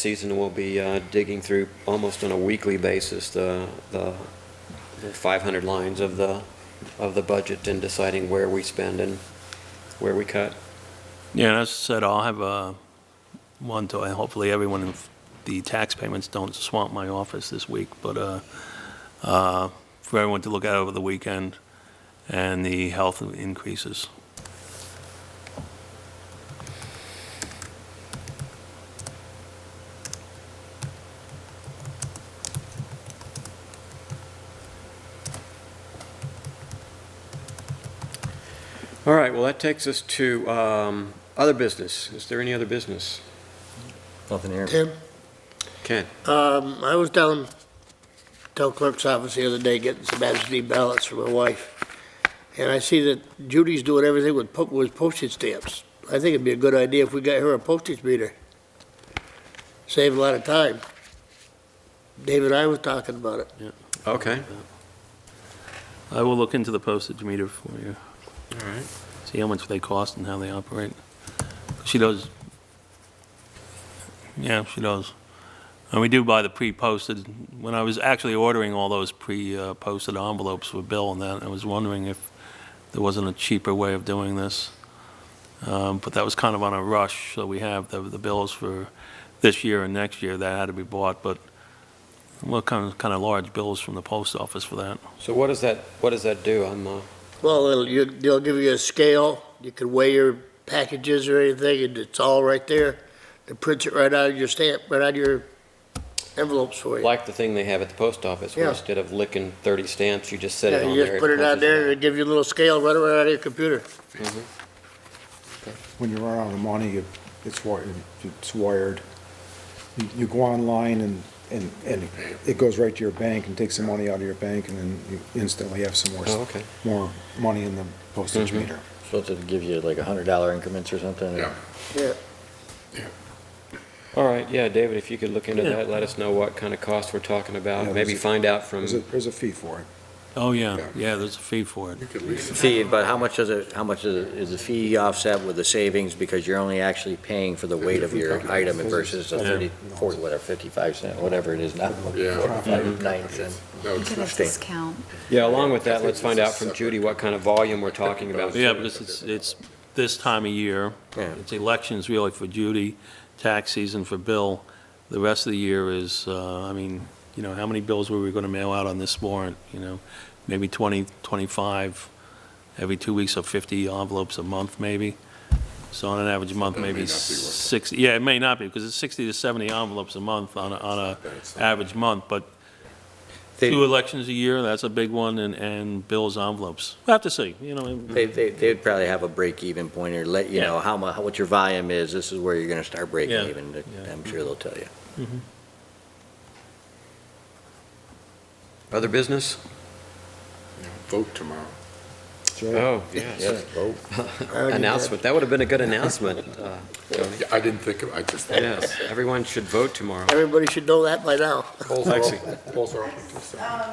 season, we'll be uh, digging through almost on a weekly basis the, the the 500 lines of the, of the budget and deciding where we spend and where we cut. Yeah, and as I said, I'll have uh, one to, hopefully everyone, in the tax payments don't swamp my office this week, but uh, uh, for everyone to look at over the weekend and the health increases. All right, well, that takes us to um, other business. Is there any other business? Nothing here. Tim, Ken? um, I was down, town clerk's office the other day getting some absentee ballots for my wife. And I see that Judy's doing everything with, po- with postage stamps. I think it'd be a good idea if we got her a postage meter. Save a lot of time. Dave and I was talking about it. Okay, I will look into the postage meter for you, all right. see how much they cost and how they operate. She does, yeah, she does. And we do buy the pre-posted, when I was actually ordering all those pre-posted envelopes for Bill and that, I was wondering if there wasn't a cheaper way of doing this. Um, But that was kind of on a rush, so we have the, the bills for this year and next year that had to be bought, but what kind of, kind of large bills from the post office for that? So what does that, what does that do? I'm, uh, Well, it'll, you, they'll give you a scale, you can weigh your packages or anything, and it's all right there. They print it right out of your stamp, right out of your envelopes for you. like the thing they have at the post office, where Yeah. instead of licking 30 stamps, you just set it Yeah, on there. you just put it on punches there, and out. it'll give you a little scale right around out of your computer. when you run out of money, you- it's wired, it's wired. You- You go online and, and, and it goes right to your bank and takes the money out of your bank and then you instantly have some more, Oh, okay. Mm-hmm. more money in the postage meter. So it'll give you like a hundred dollar increments or something? Yeah. Yeah. All right, yeah, David, if you could look into Yeah. that, let us know what kind of cost we're talking about, Yeah, maybe there's a- find out from, There's a, there's a fee for it. Oh, yeah, Yeah. yeah, there's a fee for it. You could lease it. Fee, but how much does it, how much is, it- is the fee offset with the savings because you're only actually paying for the weight of your item versus a thirty, forty, whatever, fifty-five cent, whatever it is now. Yeah. Forty-five, nine cent. No, it's Look not. at discount. yeah, along with I that, think let's this find is out from separate. Judy what kind of volume we're talking about. Yeah, because it's, it's this time of year. Yeah. It's elections really for Judy, tax season for Bill. The rest of the year is, uh, I mean, you know, how many bills were we going to mail out on this warrant, you know? Maybe 20, 25, every two weeks, or 50 envelopes a month, maybe. So on an average month, That may maybe not be worth it. 60, yeah, it may not be, because it's 60 to 70 envelopes a month on a, on a That's not- average month, but They- two elections a year, that's a big one, and, and Bill's envelopes. We'll have to see, you know. They, they, they'd probably have a break-even point or let, you know, how mu, how- what your volume is, this is where you're gonna start breaking Yeah. even. Yeah. I'm sure they'll tell you. Other business? Vote tomorrow. Sure. Oh, yes. vote. Announcement, that would have been a good announcement, uh, Tony. Yeah, I didn't think of, I just. Yes, everyone should vote tomorrow. Everybody should know that by now. Polls are Lexi. open. Polls are open till seven. Um,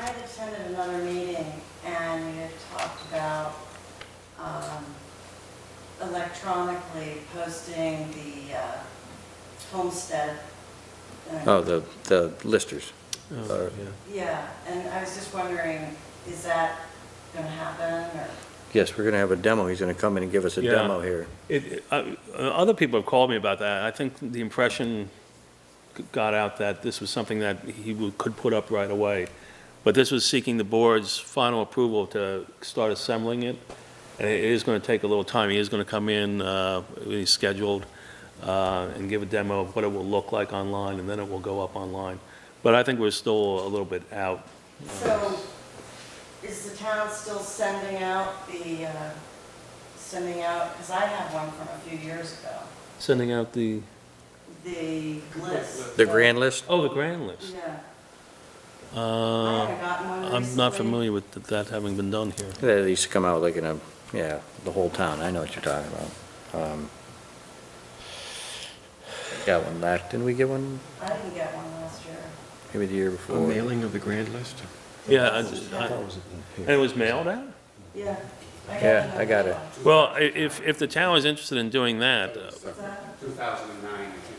I had attended another meeting and we had talked about, um, electronically posting the, uh, homestead. uh, Oh, the, the listers. Oh, yeah. Yeah, and I was just wondering, is that gonna happen or? Yes, we're gonna have a demo. He's gonna come in and give us a Yeah. demo here. It, uh, other people have called me about that. I think the impression got out that this was something that he would- could put up right away. But this was seeking the board's final approval to start assembling it. And it is going to take a little time. He is going to come in, uh, when he's scheduled, uh, and give a demo of what it will look like online, and then it will go up online. But I think we're still a little bit out. So is the town still sending out the, uh, sending out, because I have one from a few years ago, Sending out the, the list. The grand list? oh, the grand list. Yeah, I Uh, haven't gotten one I'm not recently. familiar with that having been done here. They used to come out like in a, yeah, the whole town, I know what you're talking about. Um, Got one last, didn't we get one I didn't get one last year. maybe the year A before? mailing of the grand list? Yeah, I- I- and it was mailed out? Yeah. I got Yeah, one I got it. last year. Well, i- if, if the town is interested in doing that, uh, What's that? Two thousand and nine, I think.